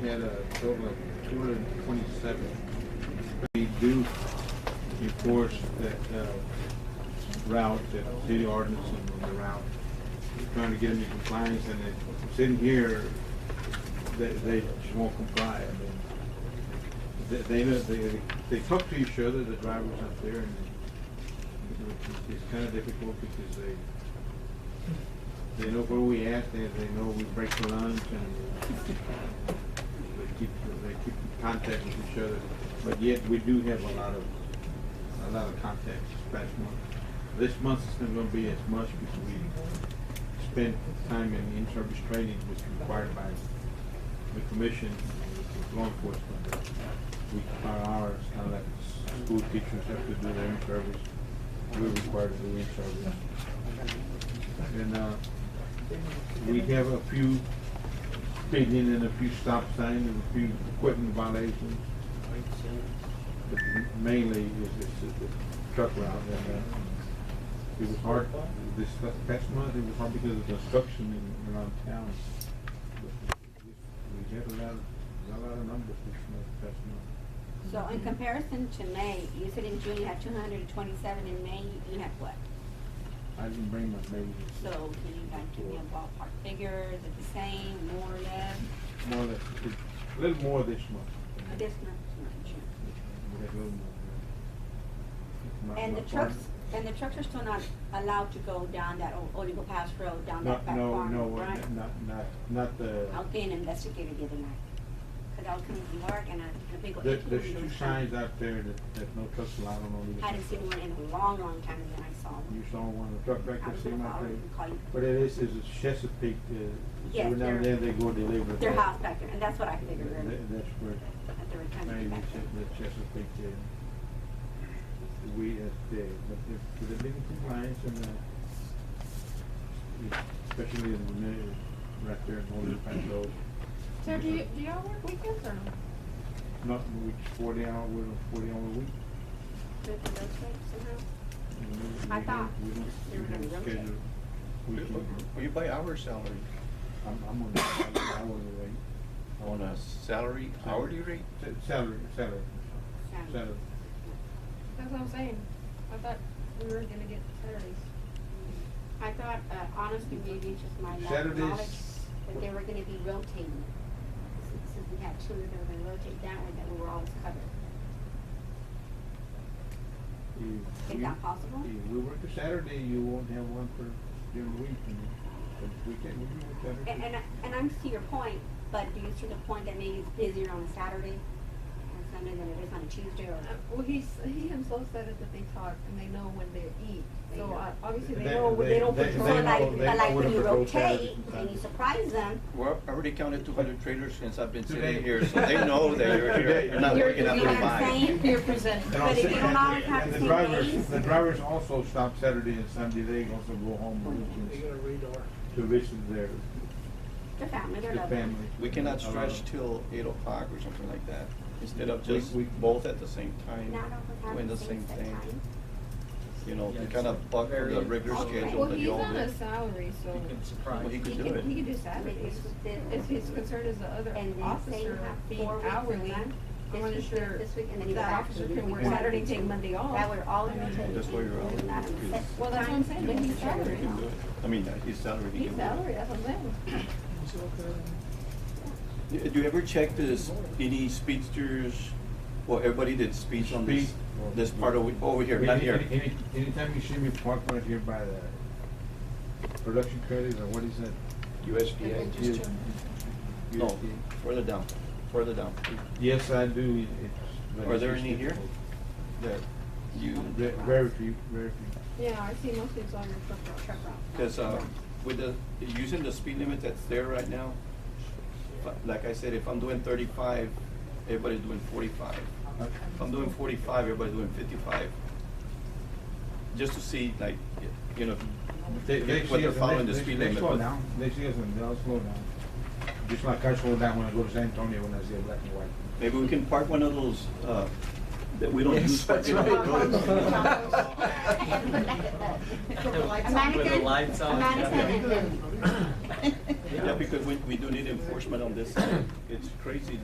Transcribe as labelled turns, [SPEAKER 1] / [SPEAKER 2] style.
[SPEAKER 1] We had a total of two hundred and twenty-seven. We do enforce that uh, route, that city ordinance and the route. We're Trying to get them in compliance and if it's in here, they, they just won't comply. I mean, they- They, know- they, they talk to each other, the drivers out there and it's- it's kind of difficult because they, they know where we at, they, they know we break for lunch and they keep, they keep in contact with each other, but yet we do have a lot of, a lot of contacts this past month. This month is not gonna be as much because we spent time in in-service training, which is required by the commission, with law enforcement. We, our hours, kind of like s- school teachers have to do their in-service, we're required to do in-service. And, uh, we have a few speeding and a few stop signs and a few equipment violations. But Mainly is this truck route and, uh, it was hard, this past month, it was hard because of construction in, around town. But We had a lot, of- a lot of numbers this month, past month.
[SPEAKER 2] So in comparison to May, you said in June you had two hundred and twenty-seven, in May you- you had what?
[SPEAKER 1] I didn't bring my baby.
[SPEAKER 2] So can you like give me a ballpark figure, is it the same, more or less?
[SPEAKER 1] More or less, a little more this month.
[SPEAKER 2] I guess not too much.
[SPEAKER 1] We had a little more. My-
[SPEAKER 2] And the
[SPEAKER 1] my
[SPEAKER 2] trucks,
[SPEAKER 1] partner-
[SPEAKER 2] and the trucks are still not allowed to go down that O- Oligo Pass Road, down
[SPEAKER 1] No,
[SPEAKER 2] that back
[SPEAKER 1] no,
[SPEAKER 2] farm,
[SPEAKER 1] no,
[SPEAKER 2] right?
[SPEAKER 1] not, not, not the,
[SPEAKER 2] I was being investigated the other night, cause I was coming from work and I, the big.
[SPEAKER 1] there,
[SPEAKER 2] icky
[SPEAKER 1] there's
[SPEAKER 2] one
[SPEAKER 1] two
[SPEAKER 2] was-
[SPEAKER 1] signs out there that, that no trucks allowed on Olive.
[SPEAKER 2] I hadn't seen one in a long, long time and then I saw
[SPEAKER 1] You
[SPEAKER 2] one.
[SPEAKER 1] saw one, of the truck back
[SPEAKER 2] I
[SPEAKER 1] there
[SPEAKER 2] was
[SPEAKER 1] sitting
[SPEAKER 2] gonna
[SPEAKER 1] out
[SPEAKER 2] call you and
[SPEAKER 1] there.
[SPEAKER 2] call you.
[SPEAKER 1] But it is, is a Chesapeake, uh,
[SPEAKER 2] Yes,
[SPEAKER 1] every now and
[SPEAKER 2] they're-
[SPEAKER 1] then they go deliver.
[SPEAKER 2] Their
[SPEAKER 1] that.
[SPEAKER 2] house back there, and that's what I figured.
[SPEAKER 1] That- That's where.
[SPEAKER 2] That they were trying to
[SPEAKER 1] Maybe
[SPEAKER 2] get back there.
[SPEAKER 1] the Chesapeake did. We at the, but the, the big compliance and the, especially in the middle, right there in Golden Pass Road.
[SPEAKER 3] So do you, do y'all work weekends or no?
[SPEAKER 1] Not, which forty hour, we're on forty hour a week.
[SPEAKER 2] Did they rotate somehow?
[SPEAKER 1] and we- we
[SPEAKER 2] I
[SPEAKER 1] have-
[SPEAKER 2] thought
[SPEAKER 1] We don't,
[SPEAKER 2] they were
[SPEAKER 1] we
[SPEAKER 2] gonna
[SPEAKER 1] don't
[SPEAKER 2] rotate.
[SPEAKER 1] schedule. We can,
[SPEAKER 4] Well, you pay our salary.
[SPEAKER 1] I'm, I'm on, I'm on the way.
[SPEAKER 4] On a salary, hourly rate?
[SPEAKER 1] Sa- Salary, salary,
[SPEAKER 2] Sound.
[SPEAKER 1] salary.
[SPEAKER 3] That's what I'm saying. I thought we were gonna get Saturdays.
[SPEAKER 2] I thought, uh, honestly, maybe it's just my lack of
[SPEAKER 1] Saturdays-
[SPEAKER 2] knowledge, that they were gonna be rotating. Since since we had two, they were gonna rotate that way, that we were always covered.
[SPEAKER 1] If
[SPEAKER 2] Is
[SPEAKER 1] you-
[SPEAKER 2] that possible?
[SPEAKER 1] If we work a Saturday, you won't have one for during the week, and if we can, we can work Saturday.
[SPEAKER 2] And, uh, and, I- and I'm to your point, but do you see the point that maybe it's busier on a Saturday and Sunday than it is on a Tuesday or?
[SPEAKER 3] Uh, Well, he's, he himself said it that they talk and they know when they eat. So
[SPEAKER 2] They know.
[SPEAKER 3] uh, obviously they
[SPEAKER 1] They-
[SPEAKER 3] know, when they don't
[SPEAKER 1] they-
[SPEAKER 3] patrol
[SPEAKER 2] So
[SPEAKER 1] know-
[SPEAKER 3] like.
[SPEAKER 2] like,
[SPEAKER 1] they
[SPEAKER 2] but like
[SPEAKER 1] know
[SPEAKER 2] when
[SPEAKER 1] when
[SPEAKER 2] you
[SPEAKER 1] to go Saturdays
[SPEAKER 2] rotate
[SPEAKER 1] and
[SPEAKER 2] and you
[SPEAKER 1] Sundays.
[SPEAKER 2] surprise them,
[SPEAKER 4] Well, I already counted two hundred trailers since I've been
[SPEAKER 1] Today.
[SPEAKER 4] sitting here, so they know that you're here, you're not
[SPEAKER 2] You're-
[SPEAKER 4] working
[SPEAKER 2] you
[SPEAKER 4] out
[SPEAKER 2] know
[SPEAKER 4] of
[SPEAKER 2] what I'm saying?
[SPEAKER 4] mind.
[SPEAKER 3] You're presenting.
[SPEAKER 1] And on
[SPEAKER 2] But if you don't
[SPEAKER 1] Saturday-
[SPEAKER 2] always have
[SPEAKER 1] and
[SPEAKER 2] the
[SPEAKER 1] the
[SPEAKER 2] same
[SPEAKER 1] drivers,
[SPEAKER 2] days-
[SPEAKER 1] the drivers also stop Saturday and Sunday, they also go home on
[SPEAKER 5] They
[SPEAKER 1] weekends
[SPEAKER 5] got a radar.
[SPEAKER 1] to visit their,
[SPEAKER 2] their family, their
[SPEAKER 1] their
[SPEAKER 2] loved ones.
[SPEAKER 1] family.
[SPEAKER 4] We cannot stretch
[SPEAKER 1] Uh,
[SPEAKER 4] till eight o'clock or something like that, instead of
[SPEAKER 1] We-
[SPEAKER 4] just
[SPEAKER 1] we-
[SPEAKER 4] both at the same time,
[SPEAKER 2] Not always
[SPEAKER 4] doing
[SPEAKER 2] have
[SPEAKER 4] the
[SPEAKER 2] the same
[SPEAKER 4] same
[SPEAKER 2] set
[SPEAKER 4] thing.
[SPEAKER 2] time.
[SPEAKER 4] You know, they
[SPEAKER 5] Yes.
[SPEAKER 4] kind of buck the
[SPEAKER 5] Very-
[SPEAKER 4] regular
[SPEAKER 2] Okay.
[SPEAKER 4] schedule
[SPEAKER 3] Well,
[SPEAKER 4] that
[SPEAKER 3] he's
[SPEAKER 4] you all
[SPEAKER 3] on a
[SPEAKER 4] do.
[SPEAKER 3] salary, so
[SPEAKER 5] You can surprise.
[SPEAKER 4] Well, he
[SPEAKER 3] he
[SPEAKER 4] could do
[SPEAKER 3] could, he
[SPEAKER 4] it.
[SPEAKER 3] could do Saturdays.
[SPEAKER 2] Maybe
[SPEAKER 3] If his concern is the other
[SPEAKER 2] And then say you
[SPEAKER 3] officer
[SPEAKER 2] have
[SPEAKER 3] being
[SPEAKER 2] four weeks a
[SPEAKER 3] hourly,
[SPEAKER 2] month,
[SPEAKER 3] I'm
[SPEAKER 2] this
[SPEAKER 3] not
[SPEAKER 2] week,
[SPEAKER 3] sure
[SPEAKER 2] this week, and then you go
[SPEAKER 3] that
[SPEAKER 2] back to
[SPEAKER 3] officer
[SPEAKER 2] the
[SPEAKER 3] can
[SPEAKER 2] week
[SPEAKER 3] work
[SPEAKER 2] one.
[SPEAKER 3] Saturday, take Monday off.
[SPEAKER 2] That would all rotate.
[SPEAKER 4] That's why you're all-
[SPEAKER 2] It's not a set
[SPEAKER 3] Well, that's what I'm saying, but
[SPEAKER 2] time.
[SPEAKER 3] he's salary.
[SPEAKER 4] He can do it. I mean, uh, his salary, he
[SPEAKER 3] He's
[SPEAKER 4] can do
[SPEAKER 3] salary, that's what I'm saying.
[SPEAKER 4] it. Do you ever check this, any speedsters, well, everybody did speeds on this,
[SPEAKER 1] Speed or-
[SPEAKER 4] this part over, over here,
[SPEAKER 1] any-
[SPEAKER 4] not here?
[SPEAKER 1] any- any- Anytime you see me park right here by the production credit, or what is that?
[SPEAKER 6] USDA.
[SPEAKER 1] Yes.
[SPEAKER 4] No, further down, further down.
[SPEAKER 1] Yes, I do, it's. but
[SPEAKER 4] Are
[SPEAKER 1] it's
[SPEAKER 4] there
[SPEAKER 1] just
[SPEAKER 4] any here?
[SPEAKER 1] difficult.
[SPEAKER 4] That you,
[SPEAKER 1] Ve- Very few, very few.
[SPEAKER 3] Yeah, I see most of it's on your truck route.
[SPEAKER 2] Truck route.
[SPEAKER 4] because uh, with the, using the speed limit that's there right now, but like I said, if I'm doing thirty-five, everybody's doing forty-five.
[SPEAKER 1] Uh,
[SPEAKER 4] If I'm doing forty-five, everybody's doing fifty-five. Just to see, like, you know,
[SPEAKER 1] They, they
[SPEAKER 4] what
[SPEAKER 1] see
[SPEAKER 4] they're
[SPEAKER 1] us,
[SPEAKER 4] following
[SPEAKER 1] and
[SPEAKER 4] the
[SPEAKER 1] they, they,
[SPEAKER 4] speed
[SPEAKER 1] they
[SPEAKER 4] limit.
[SPEAKER 1] slow
[SPEAKER 4] but-
[SPEAKER 1] down, they see us and they'll slow down. Just like I slow down when I go to San Antonio when I see a black and white.
[SPEAKER 4] Maybe we can park one of those, uh, that we don't
[SPEAKER 6] Yes,
[SPEAKER 4] use.
[SPEAKER 6] that's
[SPEAKER 4] you know,
[SPEAKER 6] right.
[SPEAKER 2] A mannequin?
[SPEAKER 6] With the lights
[SPEAKER 2] A
[SPEAKER 6] on.
[SPEAKER 2] mannequin and then-
[SPEAKER 4] Yeah, because we, we do need enforcement on this. It's crazy